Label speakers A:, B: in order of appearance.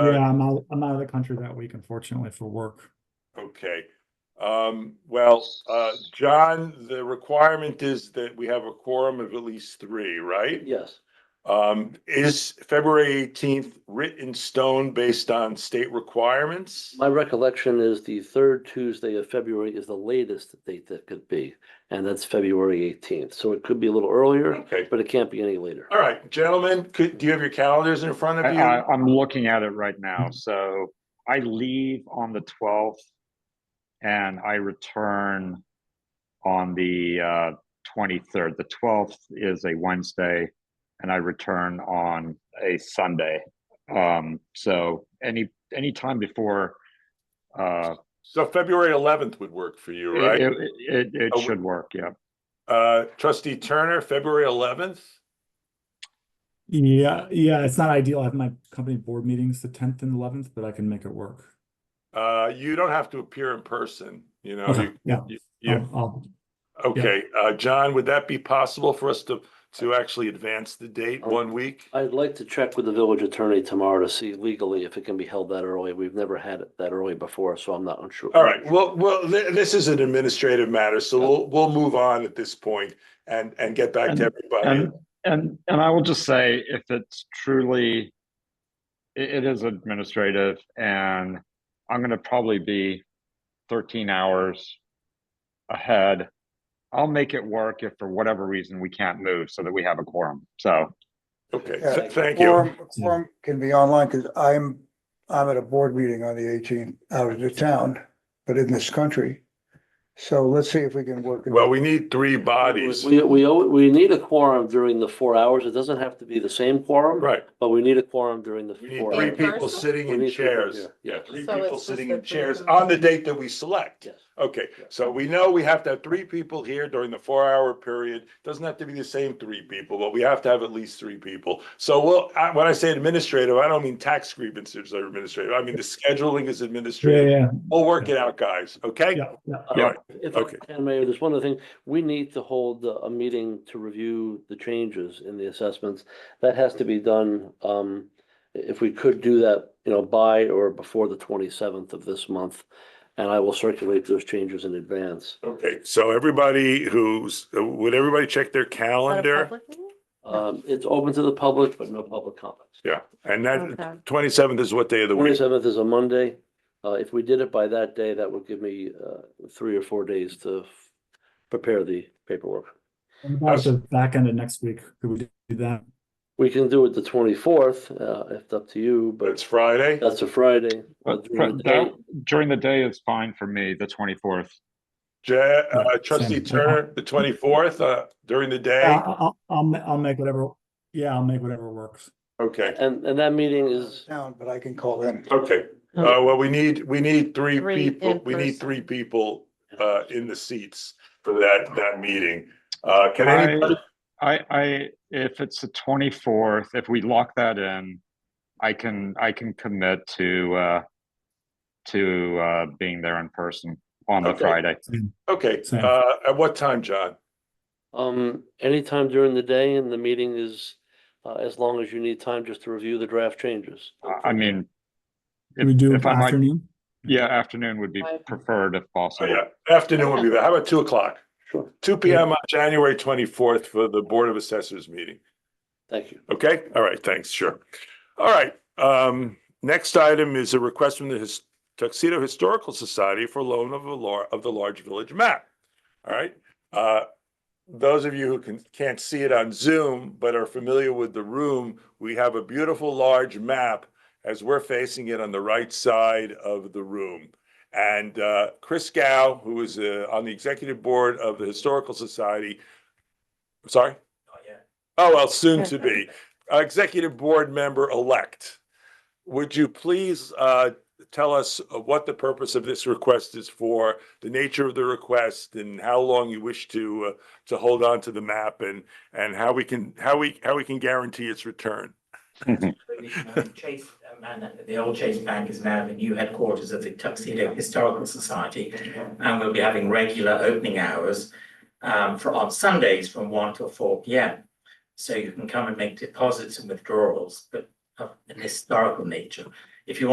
A: Yeah,
B: Uh,
A: I'm out, I'm out of the country that week unfortunately for work.
B: okay. Um, well, uh, John, the requirement is that we have a quorum of at least three, right?
C: Yes,
B: Um, is February eighteenth written in stone based on state requirements?
C: my recollection is the third Tuesday of February is the latest date that could be, and that's February eighteenth. So it could be a little earlier,
B: Okay,
C: but it can't be any later.
B: all right, gentlemen, could, do you have your calendars in front
D: I,
B: of you?
D: I, I'm looking at it right now. So I leave on the 12th and I return on the uh, 23rd. The 12th is a Wednesday and I return on a Sunday. Um, so any any time before uh,
B: So February eleventh would work for you,
D: it,
B: right?
D: it, it, it
B: Oh,
D: should work. Yeah.
B: Uh, trustee Turner, February eleventh?
A: Yeah, yeah, it's not ideal. I have my company board meetings the tenth and eleventh, but I can make it work.
B: Uh, you don't have to appear in person, you know,
D: Oh,
A: Okay,
B: you,
A: yeah.
B: you- you,
A: I'll- I'll-
B: okay, uh, John, would that be possible for us to, to actually advance the date
C: Oh.
B: one week?
C: I'd like to check with the village attorney tomorrow to see legally if it can be held that early. We've never had it that early before, so I'm not unsure.
B: All right, well, well, thi- this is an administrative matter, so we'll, we'll move on at this point and, and get back to everybody.
D: And, and, and I will just say, if it's truly, i- it is administrative and I'm gonna probably be thirteen hours ahead. I'll make it work if for whatever reason we can't move so that we have a quorum. So,
B: Okay,
E: Yeah.
B: th- thank you.
E: Forum, forum can be online because I'm, I'm at a board meeting on the 18th out of the town, but in this country. So let's see if we can work. it
B: Well, we need three bodies,
C: We, we, al- we need a quorum during the four hours. It doesn't have to be the same quorum,
B: right,
C: but we need a quorum during the
B: we need
C: four
B: three
C: hours.
F: Three
B: people
F: person?
B: sitting
C: We
B: in
C: need three people,
B: chairs.
C: yeah,
B: Yeah,
C: yeah.
B: three
F: So it's
B: people
F: just
B: sitting
F: the
B: in
F: three
B: chairs
F: of us.
B: on the date that we select.
C: Yes.
B: Okay, so we know we have to have three people here during the four-hour period. Doesn't have to be the same three people, but we have to have at least three people. So well, I, when I say administrative, I don't mean tax grievances are administrative. I mean, the scheduling is
A: Yeah,
B: administrative.
A: yeah,
B: We'll work it out, guys, okay?
A: yeah, yeah.
C: Uh,
B: All right.
C: If I
B: Okay.
C: can, Mayor, there's one other thing. We need to hold uh, a meeting to review the changes in the assessments. That has to be done, um, if we could do that, you know, by or before the twenty-seventh of this month. And I will circulate those changes in advance.
B: Okay, so everybody who's, would everybody check their calendar?
C: Um, it's open to the public, but no public comments.
B: Yeah, and that, twenty-seventh is what day of the week?
C: Twenty-seventh is a Monday. Uh, if we did it by that day, that would give me, uh, three or four days to f- prepare the paperwork.
A: And About the back end of next week, could we do that?
C: We can do it the twenty-fourth, uh, if it's up to you, but.
B: It's Friday?
C: That's a Friday. uh,
D: but
C: during the
D: that-
C: day.
D: during the day is fine for me, the twenty-fourth.
B: Ja- uh,
A: Yeah,
B: trustee
A: same.
B: Turner, the twenty-fourth, uh, during the day?
A: Yeah, I'll, I'll, ma- I'll make whatever, yeah, I'll make whatever works.
B: Okay,
C: And, and that meeting is,
E: Down, but I can call in.
B: okay. Uh, well, we need, we need three
F: Three
B: people,
F: in
B: we need
F: person.
B: three people, uh, in the seats for that, that meeting. Uh, can anybody,
D: I, I, if it's the twenty-fourth, if we lock that in, I can, I can commit to, uh, to, uh, being there in person on the
B: Okay.
D: Friday.
B: okay,
A: Same.
B: uh, at what time, John?
C: um, anytime during the day and the meeting is, uh, as long as you need time just to review the draft changes.
D: I- I mean,
A: Can we
D: if,
A: do
D: if I might,
A: afternoon?
D: yeah, afternoon would be
F: Five.
D: preferred if
B: Oh,
D: possible.
B: yeah, afternoon would be there. How about two o'clock?
C: Sure.
B: Two P M on January twenty-fourth for the Board of Assessors meeting.
C: Thank you.
B: Okay, all right, thanks, sure. All right, um, next item is a request from the His- Tuxedo Historical Society for loan of a lar- of the large village map. All right, uh, those of you who can, can't see it on Zoom but are familiar with the room, we have a beautiful large map as we're facing it on the right side of the room. And, uh, Chris Gow, who is, uh, on the executive board of the Historical Society, sorry? Oh, well, soon to be, uh, Executive Board Member-elect. Would you please uh, tell us what the purpose of this request is for, the nature of the request, and how long you wish to, uh, to hold on to the map, and, and how we can, how we, how we can guarantee its return?
G: Chase, uh, Man- the old Chase Bank is now the new headquarters of the Tuxedo Historical Society. And we'll be having regular opening hours um, for, on Sundays from one till four P M. So you can come and make deposits and withdrawals, but of an historical nature. if you want.